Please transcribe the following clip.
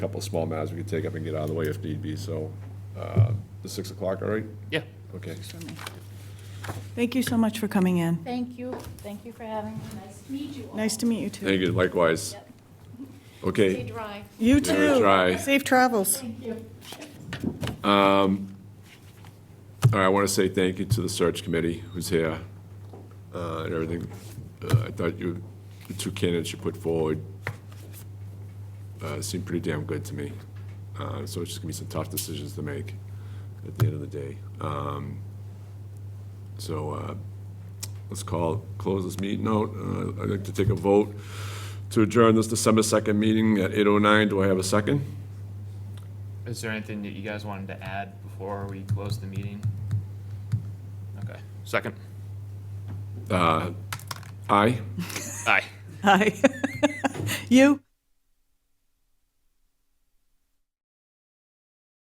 couple of small matters we could take up and get out of the way if need be, so, uh, the six o'clock, all right? Yeah. Okay. Thank you so much for coming in. Thank you, thank you for having me. Nice to meet you all. Nice to meet you, too. Thank you, likewise. Stay Okay, dry. You, Give it too. a try. Safe travels. Thank you. all right, I want to say thank you to the search committee who's here, uh, and everything. Uh, I thought you, the two candidates you put forward, uh, seemed pretty damn good to me. Uh, so it's just gonna be some tough decisions to make at the end of the day. Um, so, uh, let's call, close this meeting out. Uh, I'd like to take a vote to adjourn this December second meeting at eight oh nine. Do I have a second? Is there anything that you guys wanted to add before we close the meeting? Okay, second. Uh, aye? Aye. Hi. You?